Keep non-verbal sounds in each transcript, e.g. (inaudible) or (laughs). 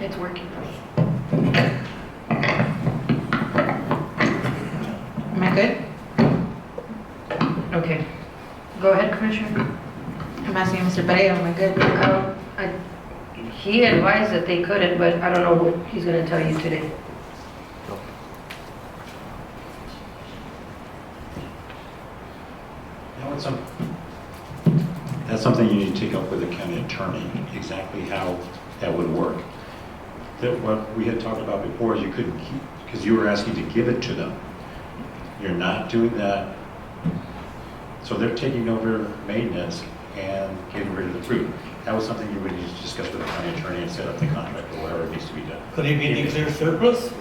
It's working for me. Am I good? Okay. Go ahead, Commissioner. I'm asking Mr. Brea, am I good? Um, I- He advised that they couldn't, but I don't know what he's gonna tell you today. Now, it's some- That's something you need to take up with the county attorney, exactly how that would work. That what we had talked about before is you couldn't keep, because you were asking to give it to them. You're not doing that. So they're taking over maintenance and getting rid of the fruit. That was something you would need to discuss with the county attorney and set up the contract or whatever needs to be done. Could it be declared surplus?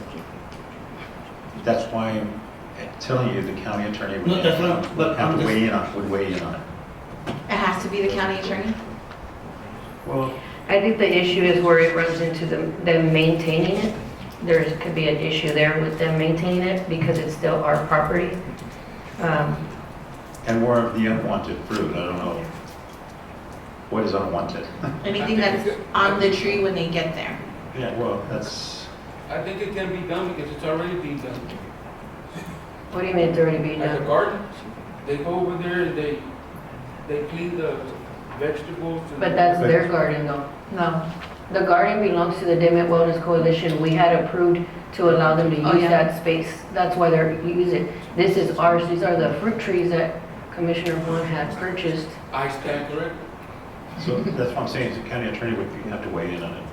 That's why I'm telling you, the county attorney No, would that's not- but have I'm to just- weigh in on, would weigh in on it. It has to be the county attorney? Well, I think the issue is where it runs into them, them maintaining it. There is- could be an issue there with them maintaining it because it's still our property. Um, And more of the unwanted fruit, I don't know. What is unwanted? Anything that's on the tree when they get there? Yeah, well, that's, I think it can be done because it's already being done. What do you mean it's already being At the done? garden, they go over there and they, they clean the vegetables and. But that's their garden though. No. The garden belongs to the Dimmitt Wellness Coalition. We had approved to allow them to Oh, use yeah. that space. That's why they're using it. This is ours. These are the fruit trees that Commissioner Juan had purchased. I stand corrected. so that's what I'm saying, is the county attorney would have to weigh in on it.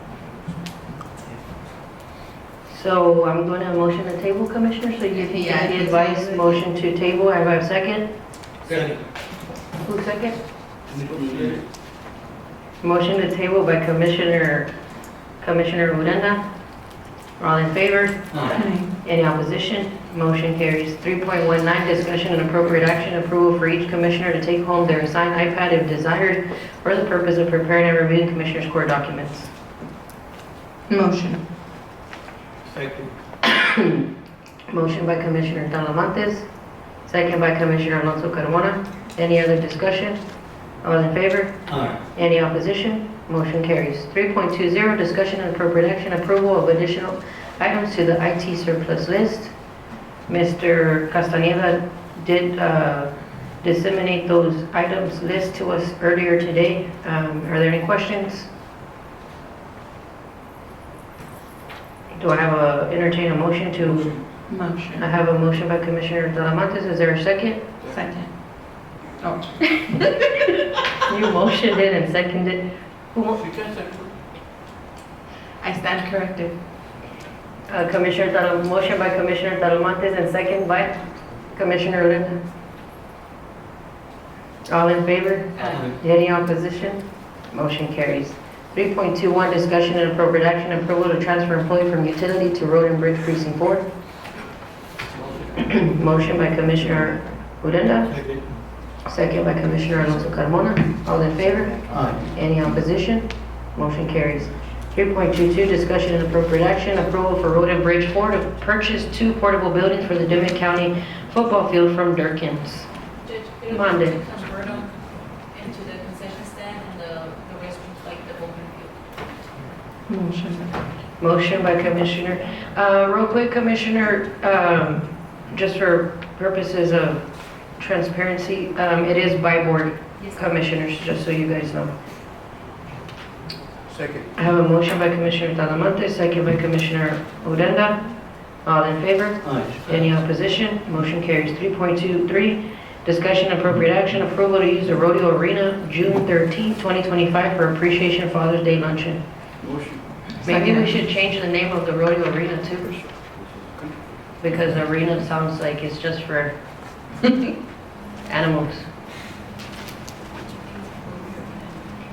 So I'm going to have motion to table, Commissioner, so you can Yeah, get the it's- advice, motion to table, I have a second. Second. Who second? Motion to table by Commissioner, Commissioner Uranda. All in favor? Any opposition? Motion carries. 3.19, discussion and appropriate action, approval for each commissioner to take home their assigned iPad if desired for the purpose of preparing and reviewing commissioners' core documents. Motion. Second. Motion by Commissioner Talamantes, second by Commissioner Alonso Carmona. Any other discussion? All in favor? Aye. Any opposition? Motion carries. 3.20, discussion and appropriate action, approval of additional items to the IT surplus list. Mr. Castaneda did uh, disseminate those items list to us earlier today. Um, Are there any questions? Do I have a, entertain a motion to I Motion. have a motion by Commissioner Talamantes, is there a second? Second. Oh. You motioned it and seconded. Who mo- She can second. I stand corrected. uh, Commissioner Talam, motion by Commissioner Talamantes and second by Commissioner Odena. All in favor? Aye. Any opposition? Motion carries. 3.21, discussion and appropriate action, approval to transfer employee from utility to road and bridge precinct board. (clears throat) Motion by Commissioner Odena, Second. second by Commissioner Alonso Carmona. All in favor? Aye. Any opposition? Motion carries. 3.22, discussion and appropriate action, approval for Road and Bridge Board to purchase two portable buildings for the Dimmitt County football field from Durkins. Judge, it would Monday. be to convert them into the concession stand and the, the restrooms, like the open field. Motion. Motion by Commissioner, uh, real quick, Commissioner, um, just for purposes of transparency, um, it is by board Yes. commissioners, just so you guys know. Second. I have a motion by Commissioner Talamantes, second by Commissioner Odena. All in favor? Aye. Any opposition? Motion carries. 3.23, discussion appropriate action, approval to use the rodeo arena June 13, 2025 for Appreciation Father's Day luncheon. Motion. Maybe we Second. should change the name of the rodeo arena too, because arena sounds like it's just for (laughs) animals.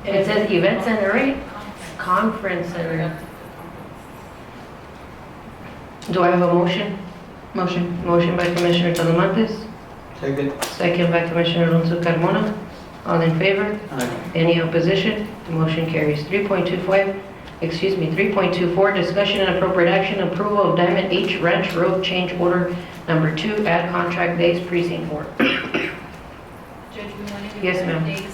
It says event center, right? Conference center. Do I have a motion? Motion. Motion by Commissioner Talamantes. Second. Second by Commissioner Alonso Carmona. All in favor? Aye. Any opposition? Motion carries. 3.25, excuse me, 3.24, discussion and appropriate action, approval of Diamond H Ranch Road Change Order Number 2, add contract days precinct 4. Judge, we wanted Yes, to. put a ma'am. date